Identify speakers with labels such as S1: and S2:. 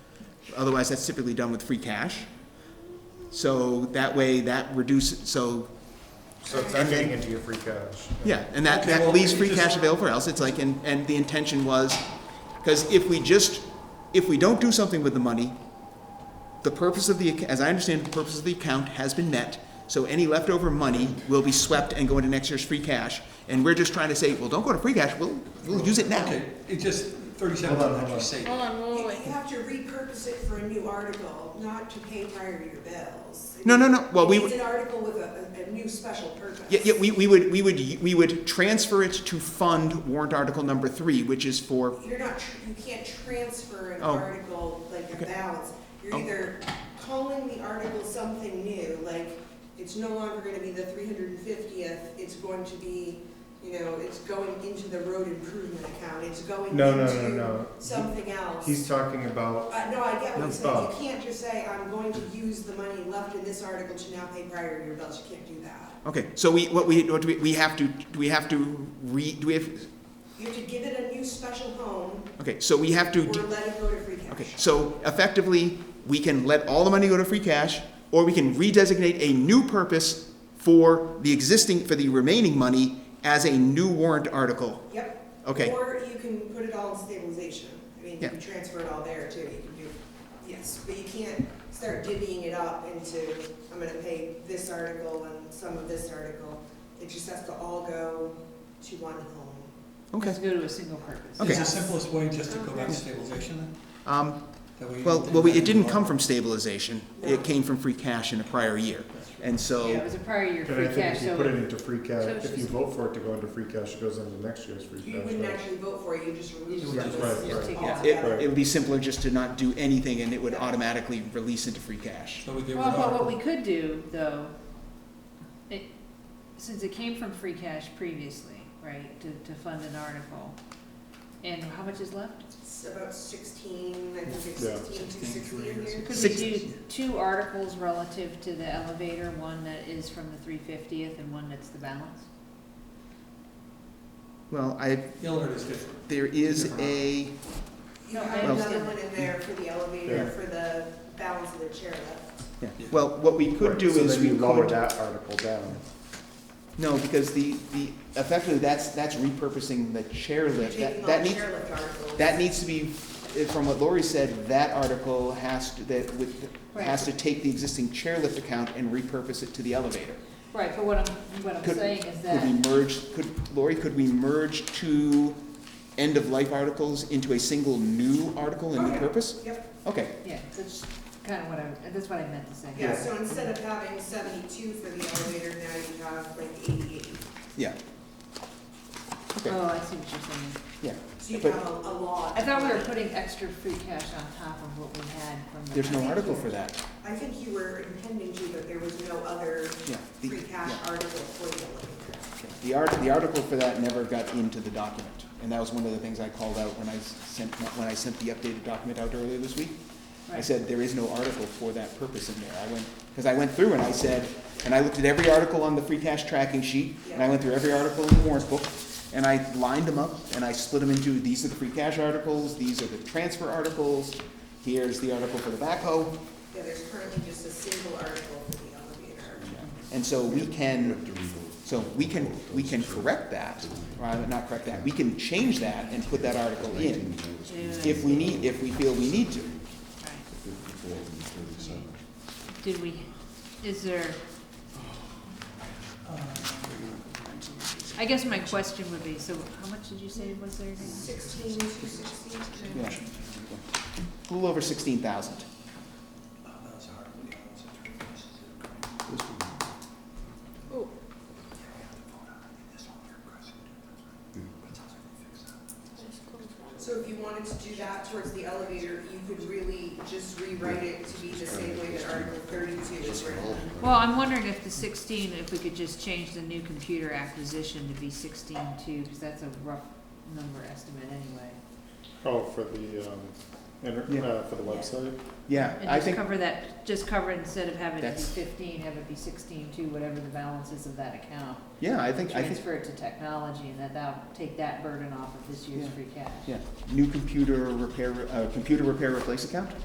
S1: Otherwise, that's typically done with free cash. So that way, that reduces, so,
S2: So it's not getting into your free cash.
S1: yeah, and that,
S3: Okay,
S1: that
S3: well,
S1: leaves
S3: we
S1: free
S3: just-
S1: cash available for else. It's like, and, and the intention was, because if we just, if we don't do something with the money, the purpose of the, ac- as I understand, it, the purpose of the account has been met. So any leftover money will be swept and go into next year's free cash. And we're just trying to say, well, don't go to free cash, we'll, we'll use it now.
S3: Okay, it just, thirty-seven
S2: Hold on, hold
S3: dollars you
S2: on.
S3: saved.
S4: Hold on, wait,
S1: Oh,
S5: You
S4: wait, wait.
S5: have to repurpose it for a new article, not to pay prior to your bills.
S1: No, no, no. Well, we
S5: It's
S1: would-
S5: an article with a, a- a new special purpose.
S1: Yeah, yeah, we, we would, we would, we would transfer it to fund warrant article number three, which is for,
S5: You're not, tr- you can't transfer an
S1: Oh.
S5: article like a
S1: Okay.
S5: balance. You're
S1: Oh.
S5: either calling the article something new, like, it's no longer gonna be the three hundred and fiftieth, it's going to be, you know, it's going into the road improvement account, it's going
S2: No, no, no, no.
S5: into something else.
S2: He's talking about,
S5: Uh, no, I
S2: No,
S5: get what you're saying.
S2: stop.
S5: You can't just say, I'm going to use the money left in this article to now pay prior to your bills. You can't do that.
S1: okay, so we, what we, what do we, we have to, do we have to re, do we have,
S5: You have to give it a new special home
S1: okay, so we have
S5: or
S1: to,
S5: let it go to free cash.
S1: okay, so effectively, we can let all the money go to free cash, or we can redesignate a new purpose for the existing, for the remaining money as a new warrant article.
S5: Yep.
S1: Okay.
S5: Or you can put it all in stabilization. I mean,
S1: Yeah.
S5: you can transfer it all there too. You can do, yes, but you can't start divvying it up into, I'm gonna pay this article and some of this article. It just has to all go to one home.
S1: Okay,
S4: Let's go to a single purpose.
S1: Okay.
S3: Is the simplest way just to go back to stabilization then?
S1: um,
S3: That way you
S1: well,
S3: don't
S1: well, we-
S3: have
S1: it
S3: to
S1: didn't
S3: borrow.
S1: come from stabilization, it came from free cash in a prior year, and so.
S4: Yeah, it was a prior year
S2: and I
S4: free
S2: think
S4: cash,
S2: if you put it
S4: so,
S2: into free
S4: so
S2: cash, if
S4: she's-
S2: you vote for it to go into free cash, it goes into next year's free
S5: You
S2: cash.
S5: wouldn't
S2: right?
S5: actually vote for it, you just release
S3: would
S5: it
S3: just
S2: vote for it.
S4: Yeah.
S1: It,
S5: altogether.
S1: it would be simpler just to not do anything and it would automatically release into free cash.
S3: So we get rid
S4: well, but what
S3: of,
S4: we could do, though, it, since it came from free cash previously, right, to, to fund an article, and how much is left?
S5: It's about sixteen, I think it's
S2: Yeah.
S5: sixteen, two sixty in here.
S4: Could we
S1: Six-
S4: do two articles relative to the elevator, one that is from the three fiftieth and one that's the balance?
S1: Well, I,
S3: the elevator is different.
S1: there is a,
S5: You
S4: No, I
S5: have another
S4: understand
S5: one in there for the
S2: Yeah.
S5: elevator, for the balance of the chairlift.
S1: yeah. well, what we could
S2: Right,
S1: do
S2: so
S1: is
S2: then you
S1: we
S2: lower
S1: could,
S2: that article down.
S1: no, because the, the, effectively, that's, that's repurposing the
S5: You're
S1: chairlift.
S5: taking
S1: That,
S5: all
S1: that
S5: the
S1: needs,
S5: chairlift articles.
S1: that needs to be, eh, from what Lori said, that article has to, that with, has to take the existing chairlift account and repurpose it to the elevator.
S4: Right, but what I'm, what I'm
S1: Could-
S4: saying is
S1: Could we
S4: that,
S1: merge, could, Lori, could we merge two end-of-life articles into a single new article and
S5: Okay.
S1: repurpose?
S5: Yep,
S1: Okay,
S4: yeah, that's kind of what I, that's what I meant to say.
S5: yeah, so instead of having seventy-two for the elevator, now you have like eighty-eight.
S1: yeah. Okay,
S4: Oh, I see what you're saying.
S1: yeah,
S5: So you
S1: But-
S5: have a a lot.
S4: I thought we were
S5: of money.
S4: putting extra free cash on top of what we had from the.
S1: there's no article for that,
S5: I think you were intending to, but there was no other
S1: yeah. The,
S5: free cash
S1: yeah,
S5: article for the elevator.
S1: okay. The art, the article for that never got into the document, and that was one of the things I called out when I s- sent, when I sent the updated document out earlier this week. I
S4: Right.
S1: said, there is no article for that purpose in there. I went, because I went through and I said, and I looked at every article on the free cash tracking sheet, and I went through every article in the warrant book, and I lined them up, and I split them into, these are the free cash articles, these are the transfer articles, here's the article for the backhoe,
S5: Yeah, there's currently just a single article for the elevator.
S1: and so we can, so we can, we can correct that, or not correct that, we can change that and put that article in if we need, if we feel we need to.
S4: Did we, is there? I guess my question would be, so how much did you say was there? again?
S5: Sixteen, two sixty.
S1: Yeah. A little over sixteen thousand.
S3: Oh, that's hard. Yeah, that's a trick. This is a great-
S4: Oh,
S5: So if you wanted to do that towards the elevator, you could really just rewrite it to be the same way that Article thirty-two is written.
S4: Well, I'm wondering if the sixteen, if we could just change the new computer acquisition to be sixteen two, because that's a rough number estimate anyway.
S2: Oh, for the, um, inter-
S1: Yeah.
S2: uh, for the website?
S1: Yeah, I
S4: And just
S1: think,
S4: cover that, just cover it instead of having it be
S1: That's-
S4: fifteen, have it be sixteen two, whatever the balance is of that account.
S1: yeah, I think, I think,
S4: Transfer it to technology and that that'll take that burden off of this year's
S1: Yeah.
S4: free cash.
S1: yeah, new computer repair, uh, computer repair replace account?